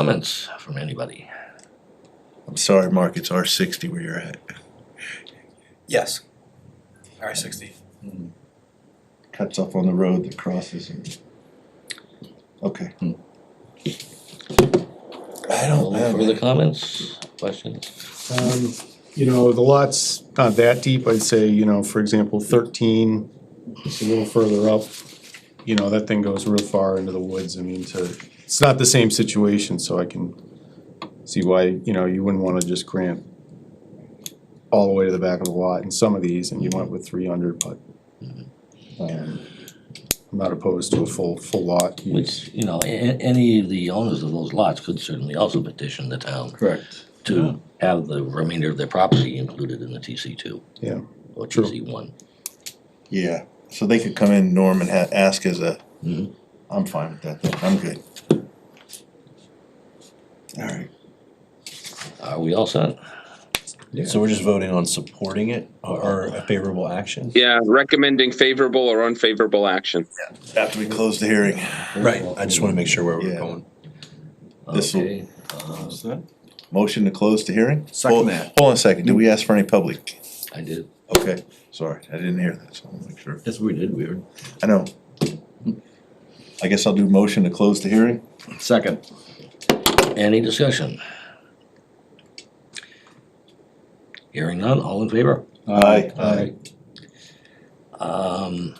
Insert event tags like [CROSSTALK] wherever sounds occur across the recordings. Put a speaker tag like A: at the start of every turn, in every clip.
A: Comments from anybody?
B: I'm sorry, Mark, it's R sixty where you're at.
C: Yes. R sixty.
B: Cuts off on the road that crosses. and- Okay.
A: Hmm.
B: I don't have
A: Further
B: it.
A: comments, questions?
D: Um, you know, the lot's not that deep, I'd say, you know, for example, thirteen, it's a little further up. You know, that thing goes real far into the woods, I mean, to, it's not the same situation, so I can see why, you know, you wouldn't wanna just grant all the way to the back of the lot in some of these, and you went with three hundred, but um, I'm not opposed to a full, full lot.
A: Which, you know, a- a- any of the owners of those lots could certainly also petition the town
B: Correct.
A: to have the remainder of their property included in the TC two
D: Yeah,
A: or
D: True.
A: TC one.
B: Yeah, so they could come in, Norm, and ha- ask as a,
A: Mhm.
B: I'm fine with that, though. I'm good. Alright,
A: Are we all set?
E: So we're just voting on supporting it or a favorable action?
F: Yeah, recommending favorable or unfavorable action.
B: after we close the hearing,
E: Right, I just wanna make sure where
B: Yeah.
E: we're going.
B: This will-
A: Okay, uh,
B: motion to close the hearing?
C: Second
B: Hold-
C: that.
B: Hold on a second, did we ask for any public?
A: I did.
B: Okay, sorry, I didn't hear that, so I'll make sure.
E: Yes, we did, we were.
B: I know. I guess I'll do motion to close the hearing?
E: Second.
A: Any discussion? Hearing none, all in favor?
B: Aye.
A: Um,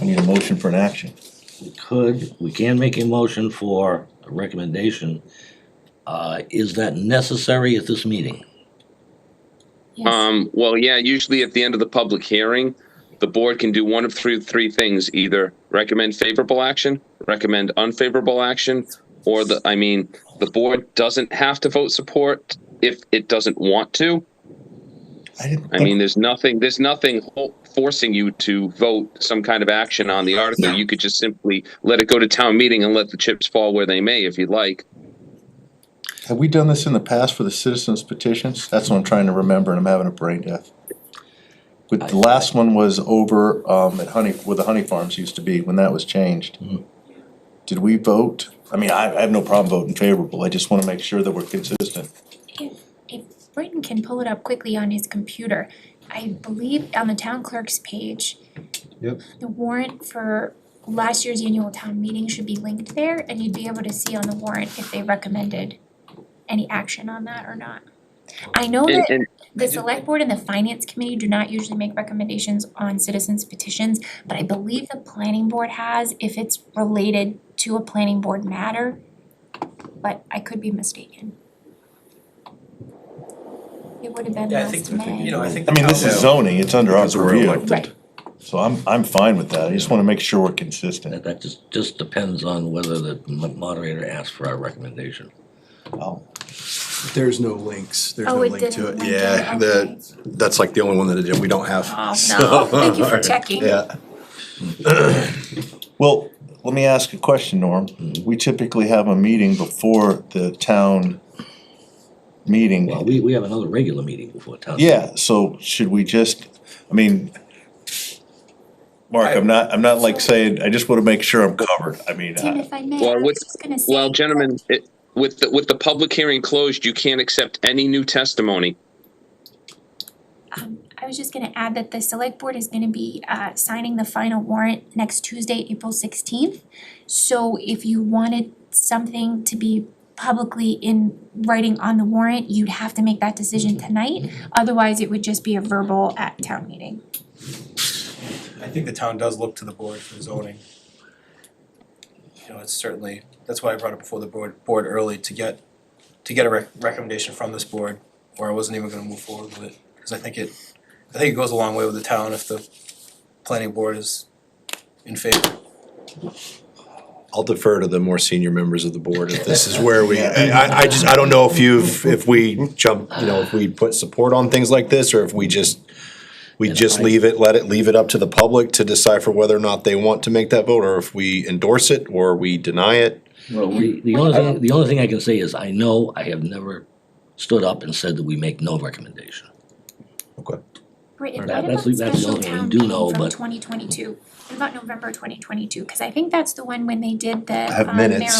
B: I need a motion for an action.
A: we could, we can make a motion for a recommendation. Uh, is that necessary at this meeting?
G: Yes,
F: Um, well, yeah, usually at the end of the public hearing, the board can do one of three, three things, either recommend favorable action, recommend unfavorable action, or the, I mean, the board doesn't have to vote support if it doesn't want to.
B: I didn't.
F: I
B: think-
F: mean, there's nothing, there's nothing ho- forcing you to vote some kind of action on the article. You could just simply let it go to town meeting and let the chips fall where they may if you'd like.
B: Have we done this in the past for the citizens petitions? That's what I'm trying to remember and I'm having a brain death. But the last one was over, um, at Honey, where the Honey Farms used to be, when that was changed. Did we vote? I mean, I, I have no problem voting favorable, I just wanna make sure that we're consistent.
G: if Britton can pull it up quickly on his computer, I believe on the town clerk's page.
D: Yep.
G: The warrant for last year's annual town meeting should be linked there and you'd be able to see on the warrant if they recommended any action on that or not. I know
F: And,
G: that
F: and
G: the select board and the finance committee do not usually make recommendations on citizens petitions, but I believe the planning board has if it's related to a planning board matter. But I could be mistaken. It would have been
C: Yeah, I think,
G: last
C: you know,
G: May.
C: I think.
B: I mean, this is zoning, it's under our
E: Because we're
B: purview,
E: elected.
G: Right,
B: so I'm, I'm fine with that, I just wanna make sure we're consistent.
A: That, that just, just depends on whether the mo- moderator asks for our recommendation.
B: Oh,
E: There's no links, there's
G: oh, it didn't link it,
E: Yeah,
C: [LAUGHS]
E: the,
G: okay.
E: that's like the only one that it did, we don't have.
G: Oh,
E: So-
G: no, thank you for checking.
E: Yeah,
B: Well, let me ask a question, Norm. We typically have a meeting before the town meeting.
A: Well, we, we have another regular meeting before town.
B: Yeah, so should we just, I mean, Mark, I'm not, I'm not like saying, I just wanna make sure I'm covered, I mean,
G: Tim,
B: I-
G: if I may,
F: Well,
G: I was
F: with-
G: just gonna say.
F: Well, gentlemen, it, with the, with the public hearing closed, you can't accept any new testimony.
G: Um, I was just gonna add that the select board is gonna be uh signing the final warrant next Tuesday, April sixteenth. So if you wanted something to be publicly in writing on the warrant, you'd have to make that decision
A: Mm-hmm.
G: tonight. Otherwise, it would just be a verbal at town meeting.
C: I think the town does look to the board for zoning. You know, it's certainly, that's why I brought it before the board, board early to get, to get a rec- recommendation from this board, or I wasn't even gonna move forward with it, cause I think it, I think it goes a long way with the town if the planning board is in favor.
E: I'll defer to the more senior members of the board if [LAUGHS] this is where we, I, I- I just, I don't know if you've, if we jump, you know, if we put support on things like this, or if we just, we just leave it, let it, leave it up to the public to decipher whether or not they want to make that vote, or if we endorse it, or we deny it.
A: Well, we. The only thing, the only thing I can say is I know I have never stood up and said that we make no recommendation.
E: Okay.
G: Brittany,
A: That-
G: what
A: that's
G: about
A: the-
G: the
A: that's the
G: special
A: only thing I
G: town
A: do know,
G: meeting from
A: but-
G: twenty twenty two? What about November twenty twenty two? Cause I think that's the one when they did the
E: have
G: um,
E: minutes.
G: marijuana